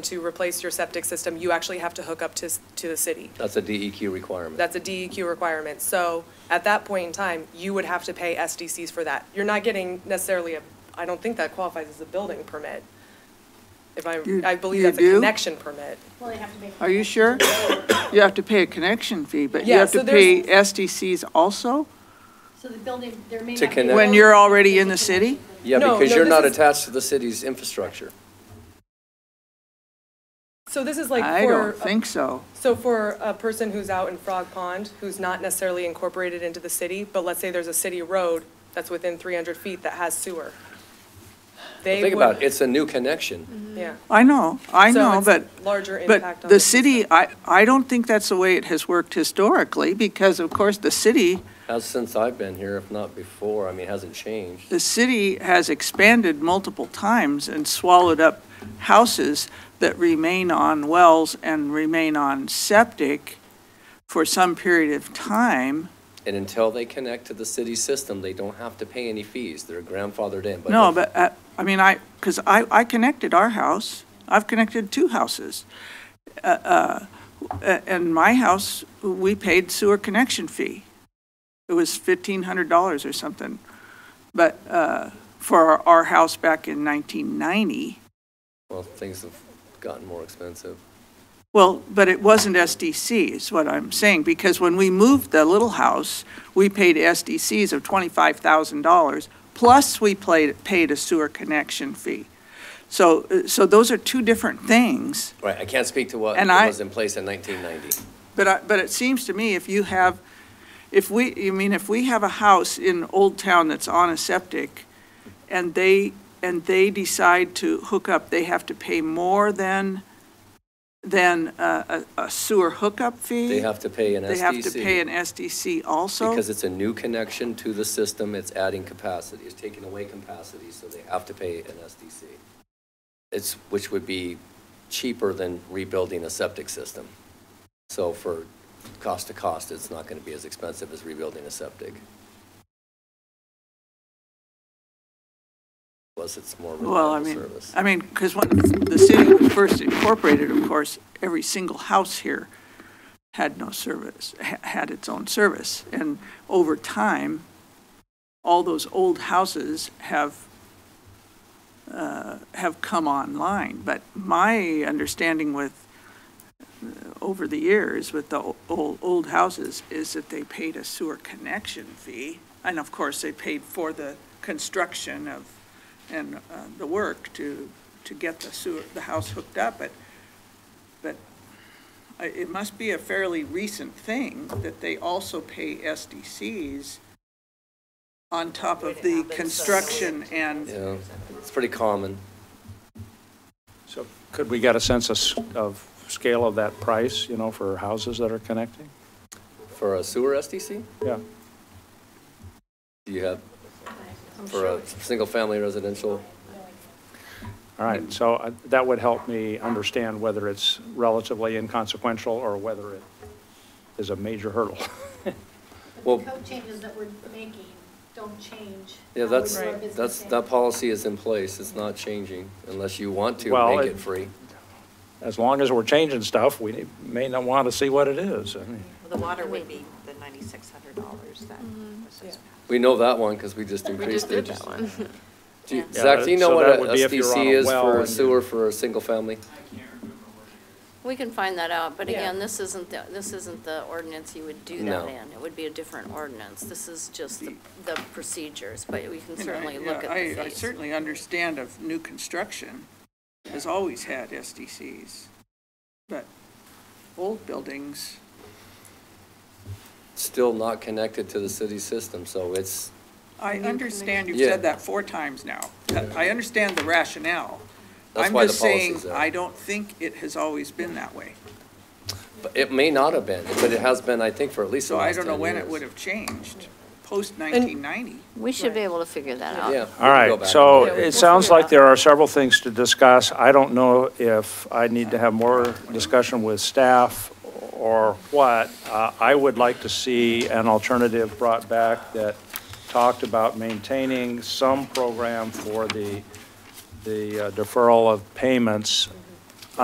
to replace your septic system, you actually have to hook up to, s- to the city. That's a DEQ requirement. That's a DEQ requirement. So at that point in time, you would have to pay SDCs for that. You're not getting necessarily a, I don't think that qualifies as a building permit. If I, You- I believe you that's a do? connection permit. Well, they have to make. Are you sure? You have to pay a connection fee, but you Yeah, have so to pay there's- SDCs also? So the building, there may To not be. connect- When you're already in the city? Yeah, No, because no, you're this not is- attached to the city's infrastructure. So this is like I for, don't think so. so for a person who's out in Frog Pond, who's not necessarily incorporated into the city, but let's say there's a city road that's within 300 feet that has sewer. They Mm-hmm. Think would- about it, it's a new connection. Yeah. I know, I So know, it's but, larger impact but on the the city, I, I don't think that's the way it has worked historically, because of course, the city, As since I've been here, if not before, I mean, it hasn't changed. the city has expanded multiple times and swallowed up houses that remain on wells and remain on septic for some period of time. And until they connect to the city system, they don't have to pay any fees. They're grandfathered in. No, but, uh, I mean, I, because I, I connected our house, I've connected two houses. Uh, uh, a- And my house, we paid sewer connection fee. It was fifteen hundred dollars or something. But uh, for our- our house back in nineteen ninety, Well, things have gotten more expensive. well, but it wasn't SDC is what I'm saying, because when we moved the little house, we paid SDCs of twenty-five thousand dollars, plus we played, paid a sewer connection fee. So, uh, so those are two different things, Right, I can't speak to what And I- was in place in 1990. but I, but it seems to me if you have, if we, you mean, if we have a house in Old Town that's on a septic, and they, and they decide to hook up, they have to pay more than, than a, a a sewer hookup fee? They have to pay an They have to pay SDC. an SDC also? Because it's a new connection to the system, it's adding capacity, it's taking away capacity, so they have to pay an SDC. It's, which would be cheaper than rebuilding a septic system. So for cost to cost, it's not going to be as expensive as rebuilding a septic. Plus, it's more Well, I reliable mean, service. I mean, because when the city was first incorporated, of course, every single house here had no service, ha- had its own service. And over time, all those old houses have, uh, have come online. But my understanding with, uh, over the years, with the old, old houses, is that they paid a sewer connection fee. And of course, they paid for the construction of and uh, the work to, to get the sewer, the house hooked up, but, but I- it must be a fairly recent thing that they also pay SDCs on top of the uh, construction and, Yeah, it's pretty common. So could we get a sense of, s- of scale of that price, you know, for houses that are connecting? For a sewer SDC, Yeah, do you have, for a single-family residential? all right, so I- that would help me understand whether it's relatively inconsequential or whether it is a major hurdle. Well- But the code changes that we're making don't change. Yeah, how we that's, do our business that's, day. that policy is in place, it's not changing unless you want to Well, make it- it free. As long as we're changing stuff, we may not want to see what it is. I mean, Well, The water would be the ninety-six hundred dollars that Mm-hmm. was just We know that one because we just increased it. Do you- Yeah, Zach, do you know so what that a would be if you're on SDC a is well for a and- sewer for a single family? We can find that out, but Yeah. again, this isn't, the this isn't the ordinance you would do No. that in. It would be a different ordinance. This is just the the procedures, but we can you know, certainly look yeah, at the I, I fees. certainly understand of new construction has always had SDCs, but old buildings, Still not connected to the city system, so it's, I understand you've Yeah. said that four times now. I understand the rationale. that's why the I'm policy's just saying, I there. don't think it has always been that way. But It may not have been, but it has been, I think, for at least the So I last don't know 10 when it years. would have changed, post-1990. We should be able to figure that out. Yeah. All we can go right, back so and look. it sounds figure it like out. there are several things to discuss. I don't know if I need to have more discussion with staff or what. Uh, I would like to see an alternative brought back that talked about maintaining some program for the, the uh, deferral of payments